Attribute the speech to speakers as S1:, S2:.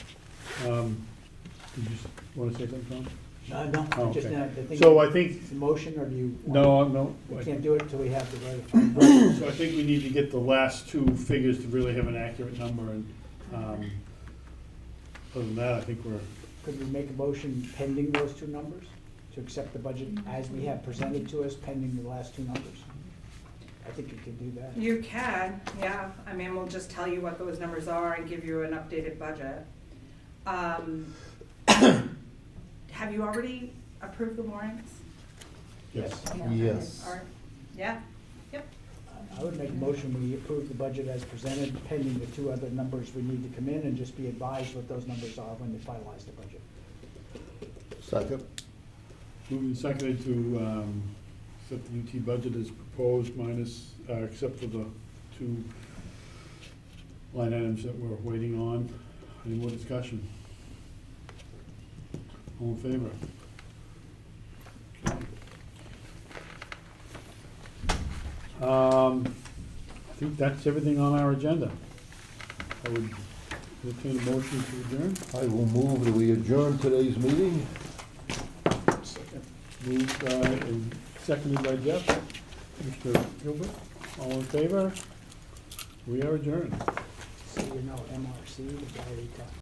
S1: Um, Did you want to say something,
S2: Uh, no,
S1: Oh,
S2: just
S1: okay.
S2: now, I think.
S1: Tom? So I think,
S2: It's a motion, or do you? want-
S1: no, no.
S2: We
S1: I-
S2: can't do it until we have the right.
S1: So I think we need to get the last two figures to really have an accurate number, and um, other than that, I think we're,
S2: Could we make a motion pending those two numbers? To accept the budget as we have presented to us pending the last two numbers? I think you could do that.
S3: You can, yeah. I mean, we'll just tell you what those numbers are and give you an updated budget. Um, Have you already approved the warrants?
S1: yes.
S4: Yes.
S3: Or- Yeah, yep.
S2: I would make a motion, we approve the budget as presented pending the two other numbers we need to come in and just be advised what those numbers are when they finalize the budget.
S4: Second?
S1: Moving and seconded to um, accept the UT budget as proposed minus, uh, except for the two line items that we're waiting on. Any more discussion? All in favor? Okay. Um, I think that's everything on our agenda. I would entertain a motion to adjourn.
S4: I will move that we adjourn today's meeting.
S1: Moved by, and seconded by Jeff. Mr. Gilbert, all in favor? We are adjourned.
S2: So you know, MRC, the guy we talked